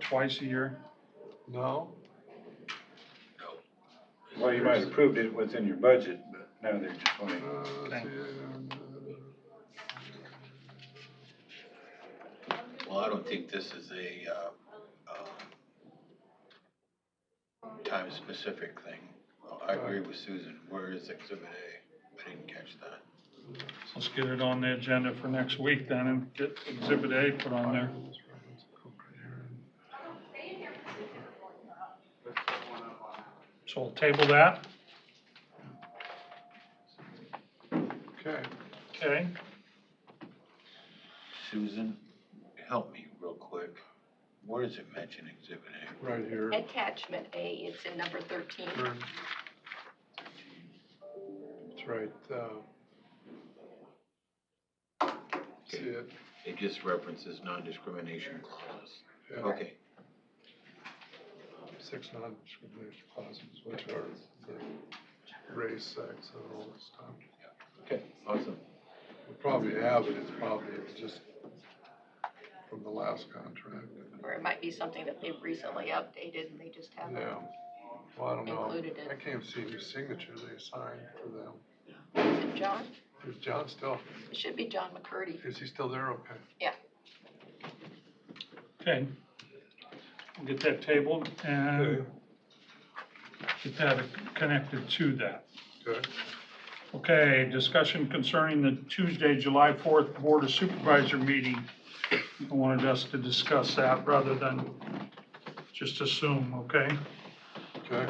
twice a year? No? Well, you might have approved it within your budget, but now they're just wanting. Uh, let's see. Well, I don't think this is a, uh, um, time-specific thing. Well, I agree with Susan. Where is exhibit A? I didn't catch that. Let's get it on the agenda for next week then and get exhibit A put on there. So we'll table that, Okay, okay? Susan, help me real quick. Where does it mention exhibit A? right here. Attachment A, it's in number thirteen. Burn. That's right, uh. See it? It just references non-discrimination clause. Yeah. Okay, Six non-discrimination clauses, which are the race, sex, and all this stuff. okay, awesome. We probably have it, it's probably, it's just from the last contract. Or it might be something that they've recently updated and they just haven't. Yeah, well, I don't know. Included it. I can't see any signature they signed for them. Is it John? Is John still, It should be John McCurdy. is he still there? Okay. Okay. We'll get that tabled and get that connected to that. Good. Okay, discussion concerning the Tuesday, July 4th Board of Supervisor meeting. I wanted us to discuss that rather than just assume, okay? Okay,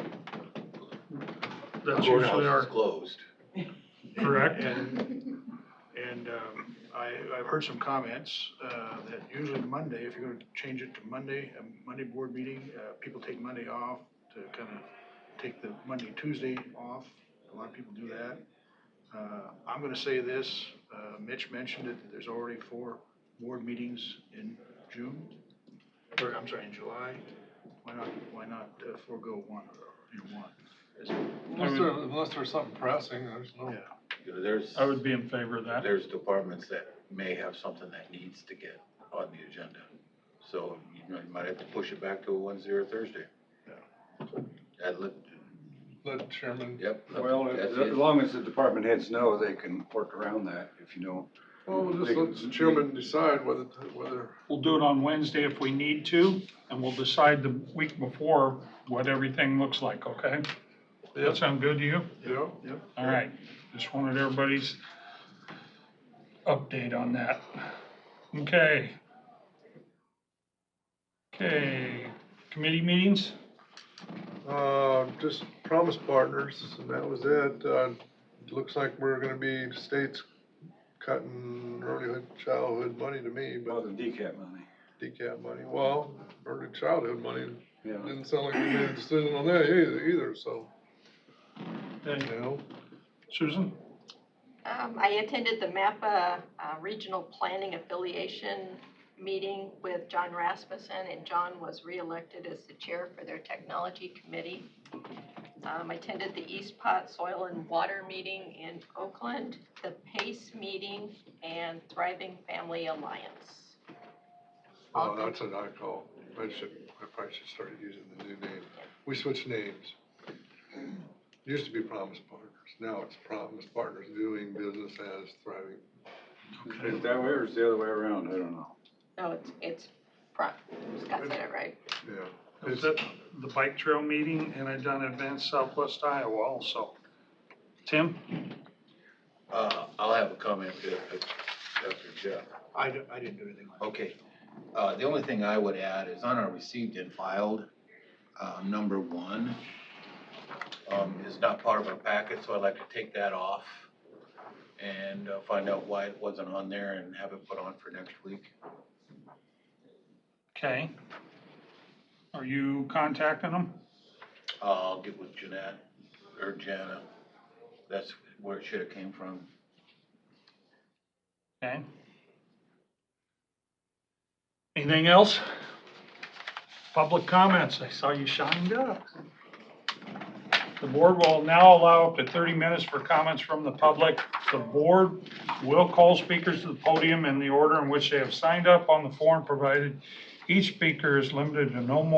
That's usually Courthouse our, is closed. correct? And, and um, I, I've heard some comments uh, that usually Monday, if you're gonna change it to Monday, a Monday board meeting, uh, people take Monday off to kind of take the Monday, Tuesday off. A lot of people do that. Uh, I'm gonna say this, uh, Mitch mentioned it, that there's already four board meetings in June, or I'm sorry, in July. Why not, why not uh, forego one, you know, one? unless there, unless there's something pressing, there's no. Yeah. You know, There's, I would be in favor of that. there's departments that may have something that needs to get on the agenda. So, you know, you might have to push it back to a Wednesday or Thursday. That li- Let Chairman, yep. Well, that's as, it. as long as the department heads know, they can work around that if you know. well, we'll just let the chairman decide whether, whether, We'll do it on Wednesday if we need to, and we'll decide the week before what everything looks like, okay? Does that sound good to you? yeah, Yep. All right, just wanted everybody's update on that. Okay. Okay, committee meetings? Uh, just Promise Partners, and that was it. Uh, it looks like we're gonna be states cutting early childhood money to me, Well, but the decap money, decap money, well, early childhood money, yeah. didn't sound like we made a decision on that either, either, so, Okay, you know. Susan? Um, I attended the MAPPA uh, Regional Planning Affiliation meeting with John Rasmussen, and John was reelected as the chair for their technology committee. Um, I attended the East Pot Soil and Water meeting in Oakland, the PACE meeting, and Thriving Family Alliance. Oh, that's what I call, I should, I probably should start using the new name. We switched names. Used to be Promise Partners, now it's Promise Partners Doing Business as Thriving. Is it that way or is it the other way around? I don't know. No, Oh, it's, it's, pro- Scott said it right. Yeah. I was at the bike trail meeting and I done Advanced Southwest Iowa also. Tim? Uh, I'll have a comment to, after Jeff. I, di- I didn't do anything like that. Okay, uh, the only thing I would add is on our received and filed, uh, number one, um, is not part of our packet, so I'd like to take that off and uh, find out why it wasn't on there and have it put on for next week. Okay. Are you contacting them? I'll get with Jeanette or Jana. That's where it should have came from. Okay. Anything else? Public comments, I saw you shined up. The board will now allow up to 30 minutes for comments from the public. The board will call speakers to the podium in the order in which they have signed up on the form provided Each speaker is limited to no more